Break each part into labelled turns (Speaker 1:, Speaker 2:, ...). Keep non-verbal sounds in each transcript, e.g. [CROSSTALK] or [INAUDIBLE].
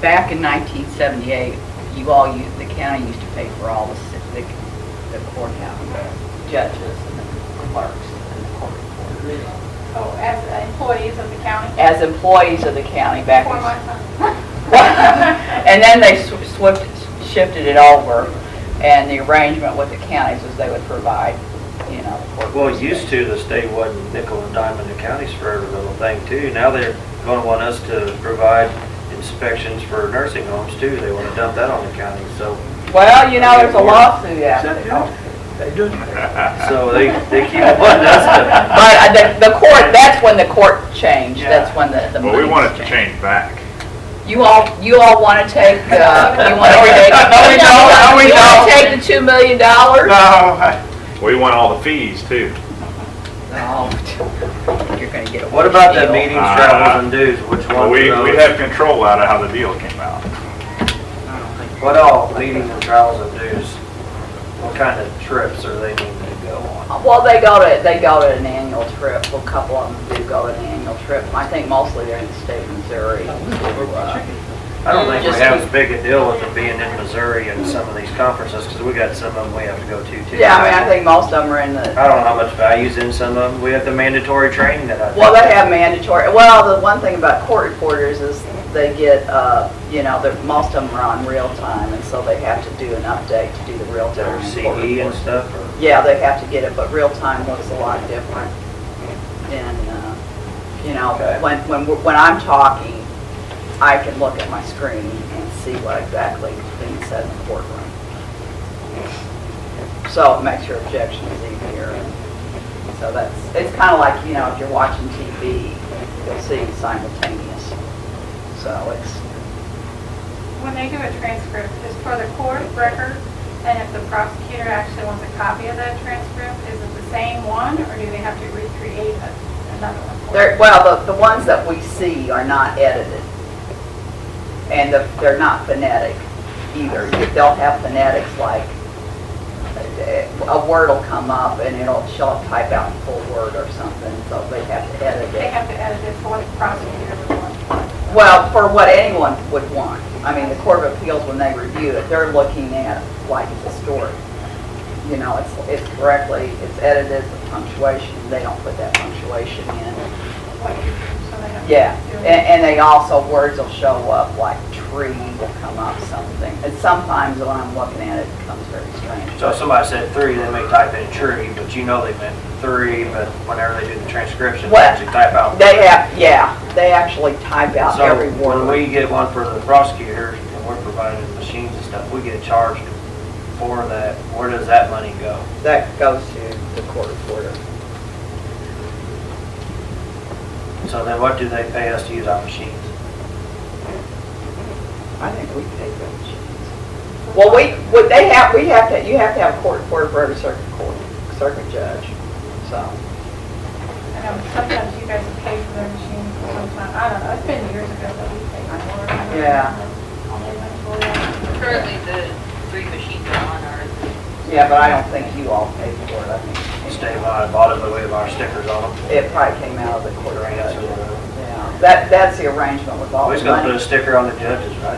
Speaker 1: back in 1978, you all, u- the county used to pay for all the si- the the courthouse, the judges and the clerks and the court reporters.
Speaker 2: Oh, as employees of the county?
Speaker 1: As employees of the county back
Speaker 2: For
Speaker 1: in
Speaker 2: my son.
Speaker 1: [LAUGHS]
Speaker 2: [LAUGHS]
Speaker 1: And then they sw- swift, shifted it over, and the arrangement with the counties was they would provide, you know. for-
Speaker 3: Well, used to, the state wasn't nickel and diamond the counties for every little thing too. Now they're going to want us to provide inspections for nursing homes too. They want to dump that on the county, so,
Speaker 1: Well, you know, there's a lawsuit out
Speaker 3: [LAUGHS] Is that
Speaker 1: there.
Speaker 4: [LAUGHS]
Speaker 3: so they, they keep [LAUGHS] wanting us
Speaker 1: But uh, the, the court, that's when the court changed, that's when the, the
Speaker 4: Well,
Speaker 1: money
Speaker 4: we want it
Speaker 1: was
Speaker 4: to
Speaker 1: changed.
Speaker 3: [LAUGHS]
Speaker 4: change back.
Speaker 1: You all, you all wanna take, uh, you wanna take.
Speaker 5: No, we don't. No, we
Speaker 1: You wanna
Speaker 5: don't.
Speaker 1: take the two million dollars?
Speaker 5: No,
Speaker 4: We want all the fees too.
Speaker 1: No. You're gonna get a
Speaker 3: to. What about
Speaker 1: deal.
Speaker 3: the meetings, travels, and dues? Which
Speaker 4: Well,
Speaker 3: one?
Speaker 4: we,
Speaker 3: of
Speaker 4: we
Speaker 3: those?
Speaker 4: have control out of how the deal came out.
Speaker 3: What all, meetings and travels and dues? What kind of trips are they needing to go on?
Speaker 1: Well, they go to, they go to an annual trip, Well, a couple of them do go to an annual trip, I think mostly they're in the state of Missouri. Uh,
Speaker 3: I don't think
Speaker 1: Just
Speaker 3: we have
Speaker 1: keep-
Speaker 3: as big a deal with them being in Missouri and some of these conferences, because we got some of them we have to go to too.
Speaker 1: Yeah, I mean, I think most of them are in the,
Speaker 3: I don't know how much value's in some of them. We have the mandatory training that I.
Speaker 1: well, they have mandatory, well, the one thing about court reporters is they get, uh, you know, they're, most of them are on real time, and so they have to do an update to do the real
Speaker 3: Their
Speaker 1: time. court
Speaker 3: CE E and
Speaker 1: reports.
Speaker 3: stuff, or
Speaker 1: Yeah, they have to get it, but real time looks a lot different than, uh, you know,
Speaker 3: Okay.
Speaker 1: when, when, we're- when I'm talking, I can look at my screen and see what exactly being said in the courtroom. So it makes your objections easier. and So that's, it's kind of like, you know, if you're watching TV, you'll see simultaneous. So it's,
Speaker 2: When they do a transcript, it's for the court record, and if the prosecutor actually wants a copy of that transcript, is it the same one, or do they have to recreate a- another one? for
Speaker 1: They're,
Speaker 2: it?
Speaker 1: well, the, the ones that we see are not edited. And the- they're not phonetic either. They'll have phonetics like, uh, a word will come up and it'll, she'll type out the full word or something, so they have to edit
Speaker 2: They
Speaker 1: it.
Speaker 2: have to edit it for what the prosecutor would want.
Speaker 1: Well, for what anyone would want. I mean, the Court of Appeals, when they review it, they're looking at like the story. You know, it's, it's correctly, it's edited, the punctuation, they don't put that punctuation in.
Speaker 2: what you do, so they don't
Speaker 1: Yeah,
Speaker 2: do
Speaker 1: and,
Speaker 2: it.
Speaker 1: and they also, words will show up, like tree will come up something. And sometimes when I'm looking at it, it becomes very strange.
Speaker 3: so if somebody said three, they may type in tree, but you know they meant three, but whenever they do the transcription, they
Speaker 1: What?
Speaker 3: actually type out.
Speaker 1: They have, yeah, they actually type out
Speaker 3: So
Speaker 1: every
Speaker 3: when
Speaker 1: word.
Speaker 3: we get one for the prosecutor and we're providing machines and stuff, we get charged for that. Where does that money go?
Speaker 1: That goes to the court reporter.
Speaker 3: So then what do they pay us to use our machines?
Speaker 1: I think we pay them. Well, we, what they have, we have to, you have to have a court reporter for every circuit court, circuit judge, so.
Speaker 2: I know sometimes you guys have paid for their machines, sometimes, I don't know, it's been years ago that we paid for it.
Speaker 1: Yeah.
Speaker 2: Yeah.
Speaker 6: Currently, the three machines are on our
Speaker 1: Yeah, but I don't think you all pay for it, I think.
Speaker 3: State line, bottom of the way of our stickers on them.
Speaker 1: It probably came out of the court
Speaker 3: Right, that's
Speaker 1: judge.
Speaker 3: what-
Speaker 1: Yeah, that, that's the arrangement with all
Speaker 3: Always
Speaker 1: the
Speaker 3: gonna put
Speaker 1: money.
Speaker 3: a sticker on the judges, right?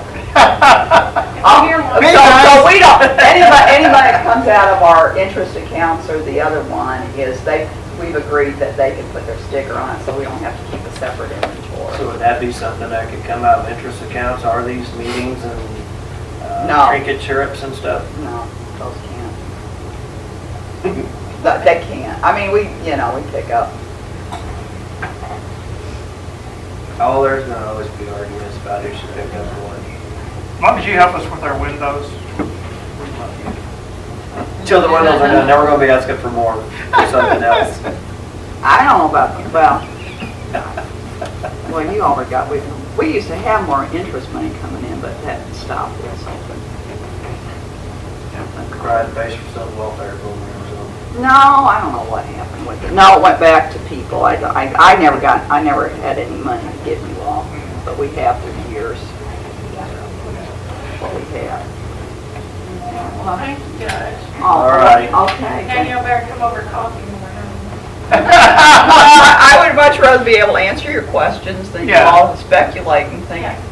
Speaker 1: Oh,
Speaker 2: Here one.
Speaker 1: So, so we don't, anybody, anybody that comes out of our interest accounts or the other one is they, we've agreed that they can put their sticker on it, so we don't have to keep a separate
Speaker 3: So
Speaker 1: inventory.
Speaker 3: would that be something that could come out of interest accounts, are these meetings and
Speaker 1: No.
Speaker 3: uh, trinket trips and stuff?
Speaker 1: No, those can't. But they can't. I mean, we, you know, we pick up,
Speaker 3: Oh, there's gonna always be arguments about who should pick up what.
Speaker 5: as long as you help us with our windows.
Speaker 3: Till the windows are done, now we're gonna be asking for more, for something else. [LAUGHS]
Speaker 1: I don't know about, well, well, you already got, we, we used to have more interest money coming in, but that stopped or something.
Speaker 3: Cried base for some welfare program or something.
Speaker 1: No, I don't know what happened with it. No, it went back to people. I, I, I never got, I never had any money to give you all, but we have through years. What we have.
Speaker 2: Thank you, Judge.
Speaker 1: All
Speaker 3: right.
Speaker 1: Okay.
Speaker 2: Now
Speaker 1: [LAUGHS] thank-
Speaker 2: you better come over coffee more.
Speaker 1: I would much rather be able to answer your questions than you
Speaker 5: Yeah.
Speaker 1: all speculate and think.
Speaker 2: Yeah.